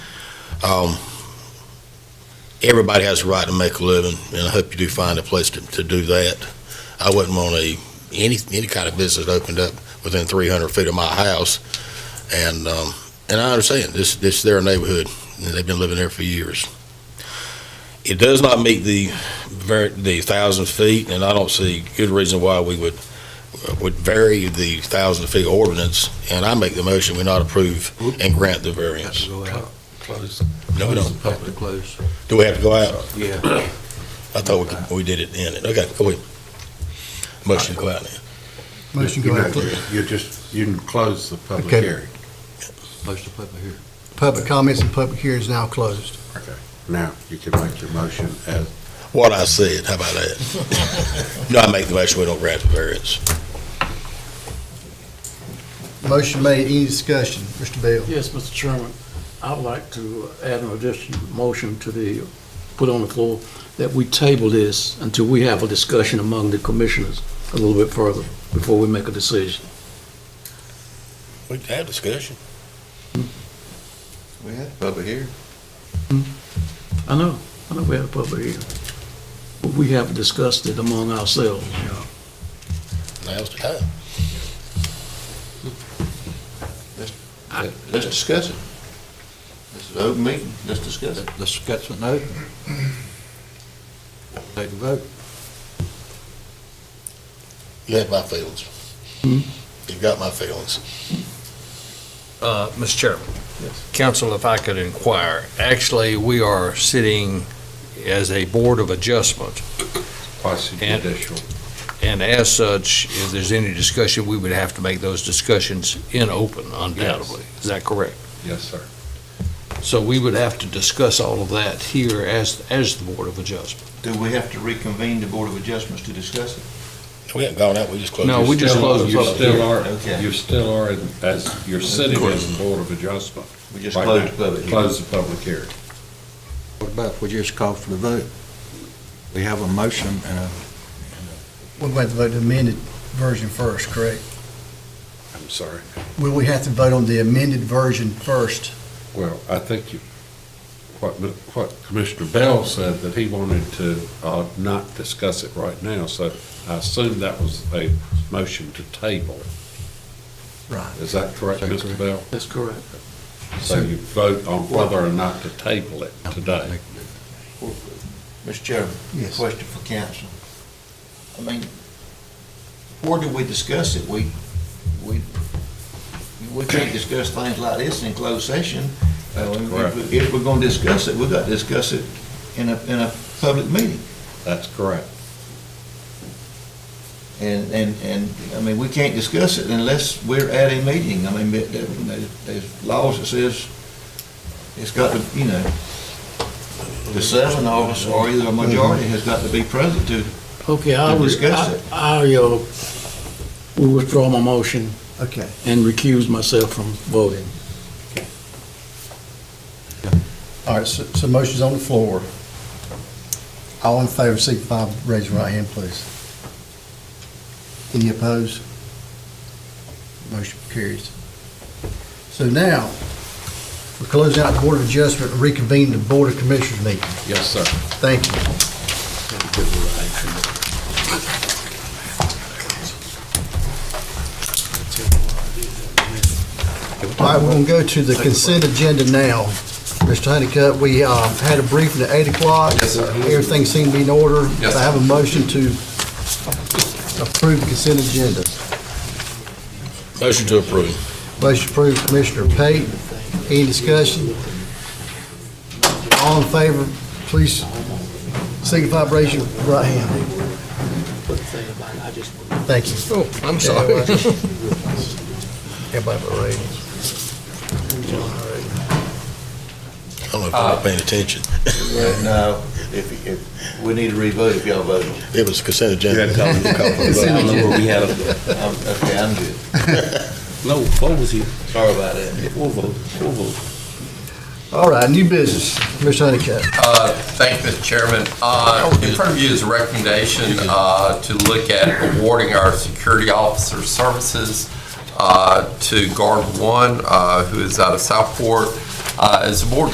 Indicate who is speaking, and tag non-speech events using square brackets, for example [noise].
Speaker 1: Um, everybody has a right to make a living, and I hope you do find a place to, to do that. I wouldn't want a, any, any kind of business opened up within three hundred feet of my house. And, um, and I understand, this, this is their neighborhood, and they've been living there for years. It does not meet the ver, the thousand feet, and I don't see good reason why we would, would vary the thousand feet ordinance. And I make the motion, we not approve and grant the variance.
Speaker 2: Go out, close.
Speaker 1: No, we don't.
Speaker 2: Close the Public close.
Speaker 1: Do we have to go out?
Speaker 2: Yeah.
Speaker 1: I thought we, could- we did it in it. Okay, go ahead. Motion to go out now.
Speaker 3: Motion
Speaker 4: You're
Speaker 3: go out.
Speaker 4: not- You're just, you can close the public
Speaker 3: Okay.
Speaker 4: hearing.
Speaker 2: Close the public hearing.
Speaker 3: Public comments and public hearing is now closed.
Speaker 4: Now, you can make your motion as,
Speaker 1: What I said, how about that? [laughs] No, I make the motion, we don't grant the variance.
Speaker 3: Motion made, any discussion? Mr. Bell?
Speaker 5: Yes, Mr. Chairman, I would like to add an additional motion to the, put on the floor, that we table this until we have a discussion among the commissioners a little bit further before we make a decision.
Speaker 1: We can have discussion.
Speaker 2: We had public hearing.
Speaker 5: I know, I know we have a public hearing, but we have discussed it among ourselves.
Speaker 1: Now's the time.
Speaker 2: Let's discuss it. This is an open meeting, let's discuss it. Let's discuss it now. Take a vote.
Speaker 1: You have my feelings.
Speaker 6: Hmm?
Speaker 1: You've got my feelings.
Speaker 6: Uh, Mr. Chairman.
Speaker 5: Yes.
Speaker 6: Council, if I could inquire, actually, we are sitting as a Board of Adjustment,
Speaker 4: quasi
Speaker 6: And-
Speaker 4: judicial.
Speaker 6: and as such, if there's any discussion, we would have to make those discussions in open undoubtedly. Is that correct?
Speaker 4: Yes, sir.
Speaker 6: So we would have to discuss all of that here as, as the Board of Adjustment.
Speaker 7: Do we have to reconvene the Board of Adjustments to discuss it?
Speaker 1: We haven't gone out, we just closed.
Speaker 6: No, we just closed the
Speaker 4: You
Speaker 6: public
Speaker 4: still
Speaker 6: hearing.
Speaker 4: are,
Speaker 7: Okay.
Speaker 4: you still are, in- as, you're sitting as the Board of Adjustment.
Speaker 7: We just
Speaker 4: right
Speaker 7: closed
Speaker 4: now.
Speaker 7: the public hearing.
Speaker 4: Close the public hearing.
Speaker 2: What about if we just call for the vote? We have a motion and a.
Speaker 3: We're going to vote the amended version first, correct?
Speaker 4: I'm sorry.
Speaker 3: Will we have to vote on the amended version first?
Speaker 4: Well, I think you, what, what Commissioner Bell said, that he wanted to, uh, not discuss it right now, so I assume that was a motion to table.
Speaker 3: Right.
Speaker 4: Is that correct, Mr. Bell?
Speaker 5: That's correct.
Speaker 4: So you vote on whether or not to table it today.
Speaker 7: Mr. Chairman,
Speaker 3: Yes.
Speaker 7: question for council. I mean, where do we discuss it? We, we, we can't discuss things like this in closed session. Uh,
Speaker 4: That's
Speaker 7: if we-
Speaker 4: correct.
Speaker 7: If we're gonna discuss it, we gotta discuss it in a, in a public meeting.
Speaker 4: That's correct.
Speaker 7: And, and, and, I mean, we can't discuss it unless we're at a meeting. I mean, but there- there- there's laws that says it's got to, you know, the seven of us or either a majority has got to be present to,
Speaker 5: Okay, I
Speaker 7: To
Speaker 5: will,
Speaker 7: discuss
Speaker 5: I,
Speaker 7: it.
Speaker 5: I, uh, will withdraw my motion
Speaker 3: Okay.
Speaker 5: and recuse myself from voting.
Speaker 3: All right, so, so motion's on the floor. All in favor, signify by raising your right hand, please. Any opposed? Motion carries. So now, we're closing out the Board of Adjustment, and reconvene the Board of Commissioners meeting.
Speaker 4: Yes,
Speaker 3: [laughs]
Speaker 4: sir.
Speaker 3: Thank you. All right, we're going to go to the consent agenda now. Mr. Honeycutt, we uh, had a briefing at 8 o'clock. Everything seemed to be in order.
Speaker 4: Yes,
Speaker 3: I have a motion to approve the consent agenda.
Speaker 1: Motion to approve.
Speaker 3: Motion approved, Commissioner Pate. Any discussion? All in favor, please signify by raising your right hand. Thank you.
Speaker 6: Oh, I'm
Speaker 3: Everybody but Ray.
Speaker 1: I don't know if I'm paying attention.
Speaker 7: no, if, if, we need to revote if y'all voted.
Speaker 1: It was consent agenda.
Speaker 7: I don't know where we had them. I'm- Okay, I'm good.
Speaker 2: No, what was he?
Speaker 7: Sorry about that.
Speaker 2: We'll vote, we'll vote.
Speaker 3: All right, new business, Mr. Honeycutt.
Speaker 8: Uh, Thank you, Mr. Chairman. Uh, In front of you is a recommendation uh, to look at awarding our security officer services uh, to Guard One, uh, who is out of Southport. Uh, As the board